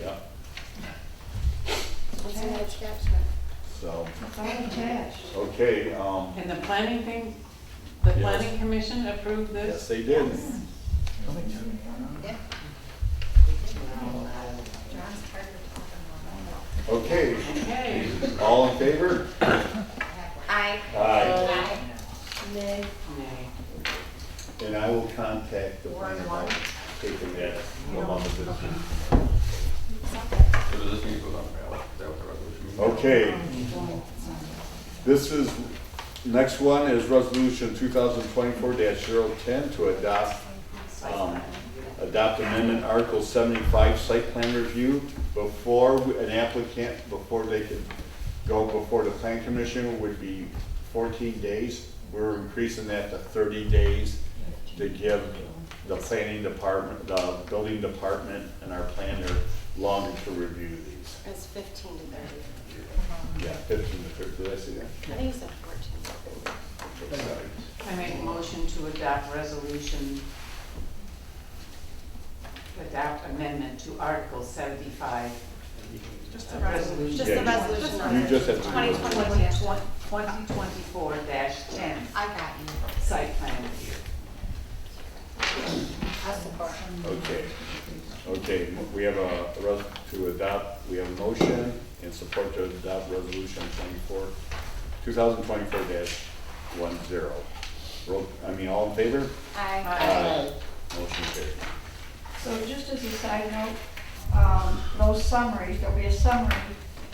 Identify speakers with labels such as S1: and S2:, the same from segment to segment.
S1: yeah,
S2: It's an
S1: so,
S3: It's all attached.
S1: okay, um,
S4: And the planning thing, the
S1: Yes.
S4: planning commission approved
S1: yes,
S4: this?
S1: they did.
S2: Yeah. John's tired of talking
S1: Okay,
S4: Okay.
S1: all in favor?
S2: about that. Aye.
S1: Aye.
S2: Nay.
S4: Nay.
S1: And I will contact the planner about taking that amount of business.
S5: So does this need to go on ballot? Is that what the resolution means?
S1: Okay. This is, next one is resolution two thousand twenty-four 10 to adopt, um, adopt amendment article seventy-five site plan review before an applicant, before they can go before the plan commission would be fourteen days. We're increasing that to thirty days to give the planning department, the building department and our planner longer to review these.
S6: It's fifteen to thirty.
S1: Yeah, fifteen to thirty, did I see that?
S6: I think it's at fourteen.
S1: Okay, sorry.
S4: I make a motion to adopt resolution, adopt amendment to Article seventy-five. Just a resolution.
S6: Just the
S1: Yeah,
S6: resolution. on
S1: You
S6: it.
S1: just have to.
S2: Twenty twenty.
S4: Twenty twenty-four ten,
S6: Uh,
S2: I got you.
S4: site plan review.
S2: I support.
S4: Mm-hmm.
S1: Okay, okay, we have a, res- to adopt, we have a motion and support to adopt resolution twenty-four, two thousand twenty-four one zero. Roll, I mean, all in favor?
S4: Aye.
S1: Motion carried.
S3: So just as a side note, um, those summaries, there'll be a summary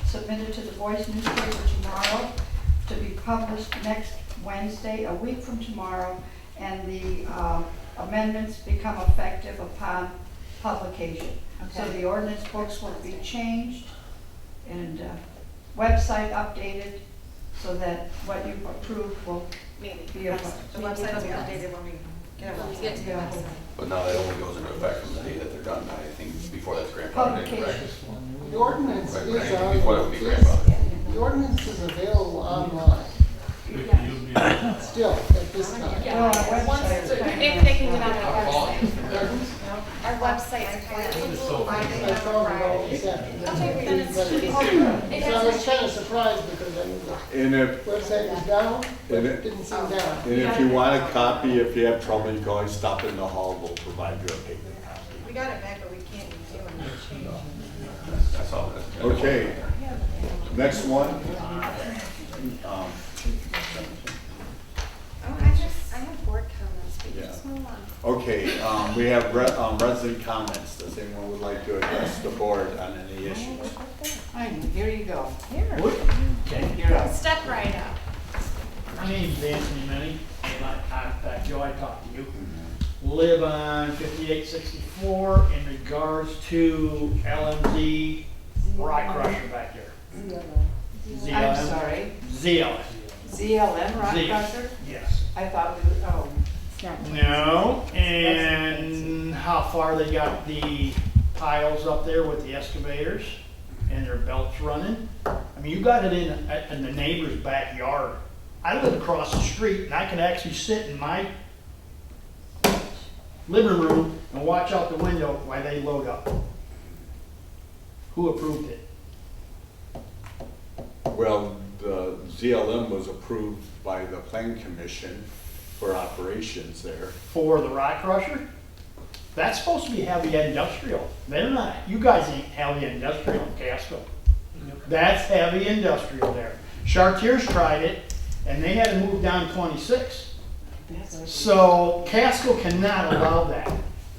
S3: submitted to the Voice newspaper tomorrow to be published next Wednesday, a week from tomorrow, and the uh, amendments become effective upon publication. So
S4: Okay.
S3: the ordinance books will be changed and uh, website updated so that what you approve will
S6: Maybe.
S3: be a.
S6: The website will be updated when we
S3: Yeah.
S6: when we get to the
S3: Yeah.
S6: website.
S5: But now that only goes into effect from the day that they're done, I think before that's grandfathered in, correct?
S3: Publication.
S7: The ordinance
S5: Right,
S7: is,
S5: right, Before that would
S7: on-
S5: be
S7: is-
S5: grandfathered.
S7: the ordinance is available online, still, at this time.
S3: Well, our
S2: Once,
S3: website is
S2: they
S3: kind
S2: they
S3: of-
S2: can get on our website. Our website's kind of. I
S7: I
S2: think that's
S7: found it all
S2: right.
S7: this afternoon.
S2: Okay, then it's-
S7: But it's-
S2: It
S7: So
S2: hasn't
S7: I was kind of
S2: changed.
S7: surprised because I knew the
S1: And if,
S7: website was down, but it didn't seem down.
S1: and if you want a copy, if you have trouble, you can always stop in the hall, we'll provide you a paper copy.
S6: We got it back, but we can't do any change.
S5: That's all that. that goes
S1: Okay.
S5: in there.
S1: Next one. Um,
S6: Oh, I just, I have board comments, but you
S1: Yeah.
S6: just move on.
S1: Okay, um, we have re- um, resident comments. Does anyone would like to address the board on any issues?
S4: Fine, here you go.
S8: Okay.
S4: You're up.
S6: Step right up.
S8: My name's Anthony Minnie, and I contact you, I talked to you. Live on fifty-eight sixty-four in regards to LMZ rock crusher back there.
S4: I'm
S8: ZLM?
S4: sorry,
S8: ZLM,
S4: ZLM Rock
S8: Z.
S4: Crusher?
S8: yes.
S4: I thought we were, oh,
S8: No, and how far they got the piles up there with the excavators and their belts running. I mean, you got it in, uh, in the neighbor's backyard. I live across the street and I can actually sit in my living room and watch out the window while they load up. Who approved it?
S1: Well, the ZLM was approved by the plan commission for operations there.
S8: For the rock crusher? That's supposed to be heavy industrial. They're not, you guys ain't heavy industrial in Casco. That's heavy industrial there. Chartiers tried it, and they had to move down twenty-six. So Casco cannot allow that.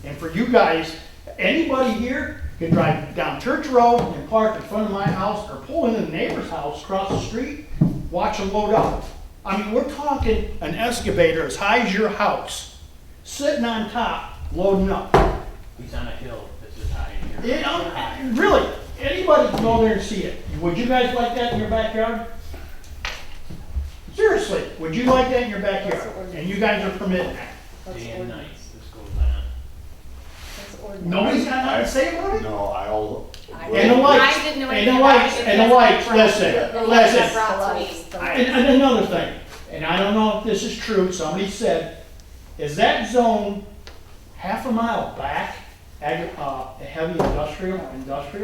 S8: And for you guys, anybody here can drive down Church Road and park in front of my house or pull into the neighbor's house across the street, watch them load up. I mean, we're talking an excavator as high as your house, sitting on top, loading up.
S9: He's on a hill that's as high in here.
S8: It, um, really, anybody can go there and see it. Would you guys like that in your backyard? Seriously, would you like that in your backyard? And you guys are permitting that.
S9: Day and night, this goes on.
S8: Nobody's got nothing to say about it?
S1: No, I'll.
S8: And the lights,
S6: I didn't know
S8: and the
S6: anything about
S8: lights,
S6: it.
S8: and the lights, listen, listen.
S6: Brought to me.
S8: And, and another thing, and I don't know if this is true, somebody said, is that zone half a mile back, ag, uh, heavy industrial, industrial?